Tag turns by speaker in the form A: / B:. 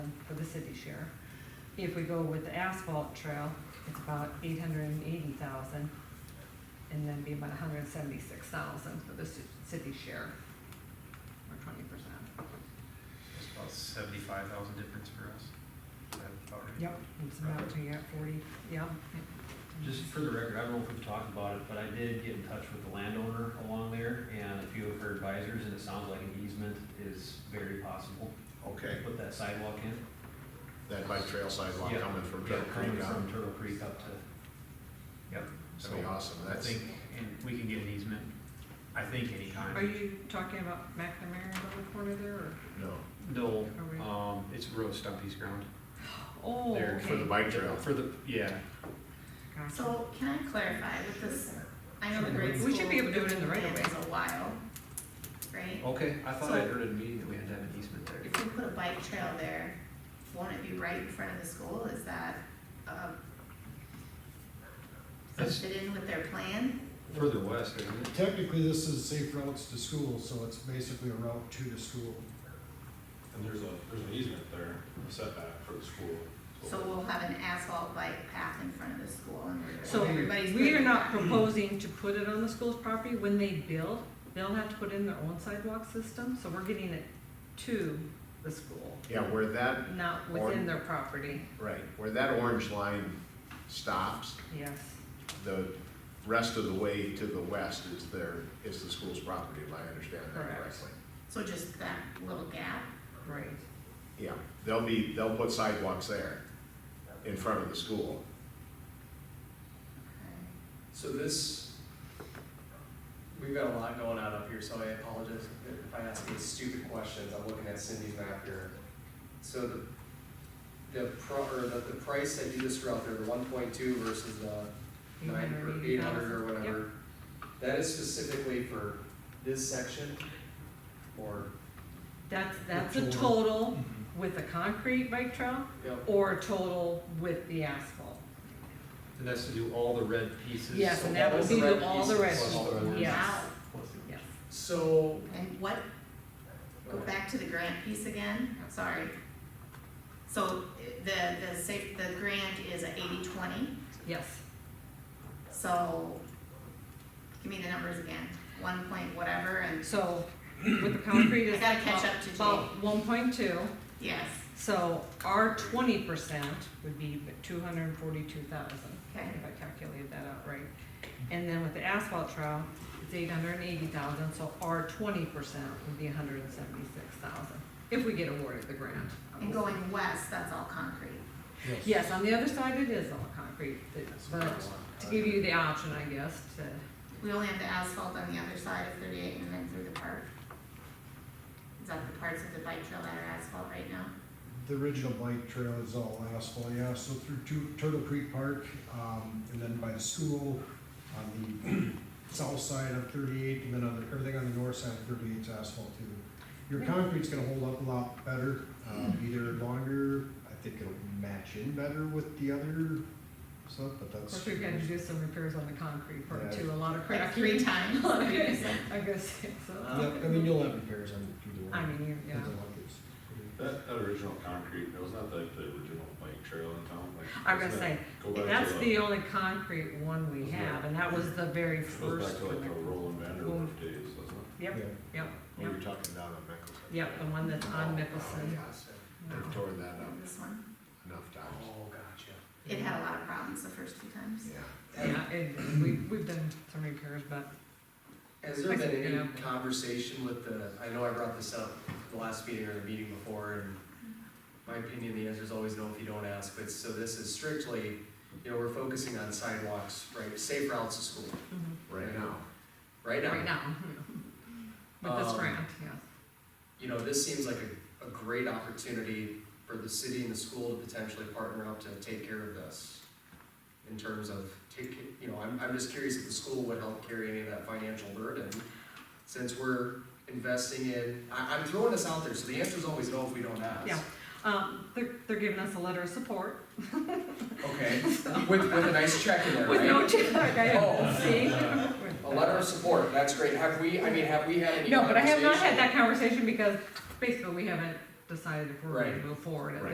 A: thousand for the city share. If we go with the asphalt trail, it's about eight hundred and eighty thousand, and then be about hundred and seventy-six thousand for the ci- city share, or twenty percent.
B: It's about seventy-five thousand difference for us. Is that about right?
A: Yep, it's about,
B: Right.
A: yeah, forty, yeah.
C: Just for the record, I don't know if we've talked about it, but I did get in touch with the landowner along there and a few of her advisors, and it sounds like an easement is very possible.
D: Okay,
C: Put that sidewalk in.
D: that bike trail sidewalk
C: Yeah.
D: coming from
C: Yeah,
D: Turtle Creek
C: Coming from
D: on,
C: Turtle Creek up to, yep.
D: that'd be awesome,
B: I
D: that's,
B: think, and we can get an easement, I think,
A: Are
B: anytime.
A: you talking about McNamara on the corner there, or?
D: no,
B: No,
A: Are
C: Uh,
A: we-
B: um, it's Rose Stumpy's ground.
A: Oh,
B: There,
D: for the
A: okay.
D: bike trail.
B: For the, yeah,
A: Gotcha.
E: So can I clarify with this, I know the grade school.
A: We should be able to do it in the right of way.
E: plan is a while, right?
B: okay, I thought I
E: So-
B: heard at a meeting that we had to have an easement there.
E: If we put a bike trail there, won't it be right in front of the school, is that, uh, does
B: That's
E: it fit in with their plan?
B: further west, isn't it?
F: Technically, this is safe routes to school, so it's basically a route to the school.
G: And there's a, there's an easement there, a setback for the school.
E: So we'll have an asphalt bike path in front of the school and we're-
A: So
E: everybody's.
A: we are
E: putting
A: not
E: that.
A: proposing to put it on the school's property. When they build, they'll have to put in their own sidewalk system, so we're getting it to the school,
D: yeah, where that,
A: not within their property,
D: right, where that orange line stops,
A: yes.
D: the rest of the way to the west is their, is the school's property, if I understand that
A: Correct.
D: correctly.
E: So just that little gap,
A: Right.
D: Yeah, they'll be, they'll put sidewalks there in front of the school.
E: okay.
H: So this, we've got a lot going on up here, so I apologize if I ask these stupid questions, I'm looking at Cindy's map here. So the, the pro, or the, the price that you just threw out there, the one point two versus the nine, or eight hundred or whatever, that is specifically for this section? Or,
A: That's, that's a
F: Total.
A: total with a concrete bike trail
H: Mm-hmm. yep,
A: or a total with the asphalt.
B: And that's to do all the red pieces.
A: Yes,
H: so
A: and that
H: all
A: would
H: the
A: be
H: red
A: the- all the red,
B: pieces.
A: yes,
E: Wow.
A: yes.
H: so,
E: And what, go back to the grant piece again, I'm sorry. So the, the safe, the grant is a eighty-twenty,
A: Yes,
E: so give me the numbers again, one point whatever and,
A: so with the concrete
E: I
A: is
E: gotta catch up to Jay.
A: about one point two.
E: yes,
A: So our twenty percent would be two hundred and forty-two thousand, if
E: Okay.
A: I calculated that out right. And then with the asphalt trial, it's eight hundred and eighty thousand, so our twenty percent would be hundred and seventy-six thousand, if we get awarded the grant.
E: and going west, that's all concrete.
A: Yes, on the other side, it is all concrete, but to give you the option, I guess, to,
E: We only have the asphalt on the other side of thirty-eight and then through the park. Is that the parts of the bike trail that are asphalt right now?
F: The original bike trail is all asphalt, yeah, so through Tu- Turtle Creek Park, um, and then by the school, on the south side of thirty-eight, and then on the, everything on the north side of 38 is asphalt too.
A: Hmm.
F: Your concrete's gonna hold up a lot better, um, either longer, I think it'll match in better with the other stuff, but
A: of
F: that's.
A: course, we've got to do some repairs on the concrete part too, a lot of
E: Like
A: cracking.
E: three times?
A: I guess, so,
F: Yep, I mean, you'll have repairs on either one.
A: I mean, you- yeah.
F: Depends on what gets-
G: That, that original concrete, that was not like the original bike trail in town, like.
A: I'm gonna
G: wasn't
A: say,
G: that- go back to
H: uh,
A: That's the only concrete one we have, and that was the very
G: Goes back
A: first
G: to like the
A: one.
G: Roland Vanderwerf days, doesn't it?
A: Yep,
F: Yeah.
A: yep,
D: What
A: yep,
D: are you talking about on Mickelson?
A: yep, the one that's on
D: Oh,
A: Mickelson.
D: yes, they've torn that up
E: This one,
D: enough
H: oh,
D: times,
H: gotcha.
E: it had a lot of problems the first two times.
D: yeah.
A: Yeah, and we, we've done some repairs, but
H: Has there
A: I think,
H: been
A: yeah.
H: any conversation with the, I know I brought this up the last meeting or the meeting before, and my opinion, the answer is always no if you don't ask, but so this is strictly, you know, we're focusing on sidewalks, right, safe routes to school,
A: mhm,
D: right now.
H: right now.
A: right now, you know, with this
H: Um,
A: grant, yes.
H: You know, this seems like a, a great opportunity for the city and the school to potentially partner up to take care of this. In terms of take, you know, I'm, I'm just curious if the school would help carry any of that financial burden, since we're investing in, I, I'm throwing this out there, so the answer is always no if we don't ask.
A: Yeah. Um, they're, they're giving us a letter of support
H: Okay, with, with a nice check in there,
A: with no
H: right?
A: check, I
H: Oh.
A: have see.
H: A letter of support, that's great, have we, I mean, have we had any
A: No, but I have not had
H: conversation?
A: that conversation because basically we haven't decided if we're ready to
H: Right.
A: move forward at
D: Right.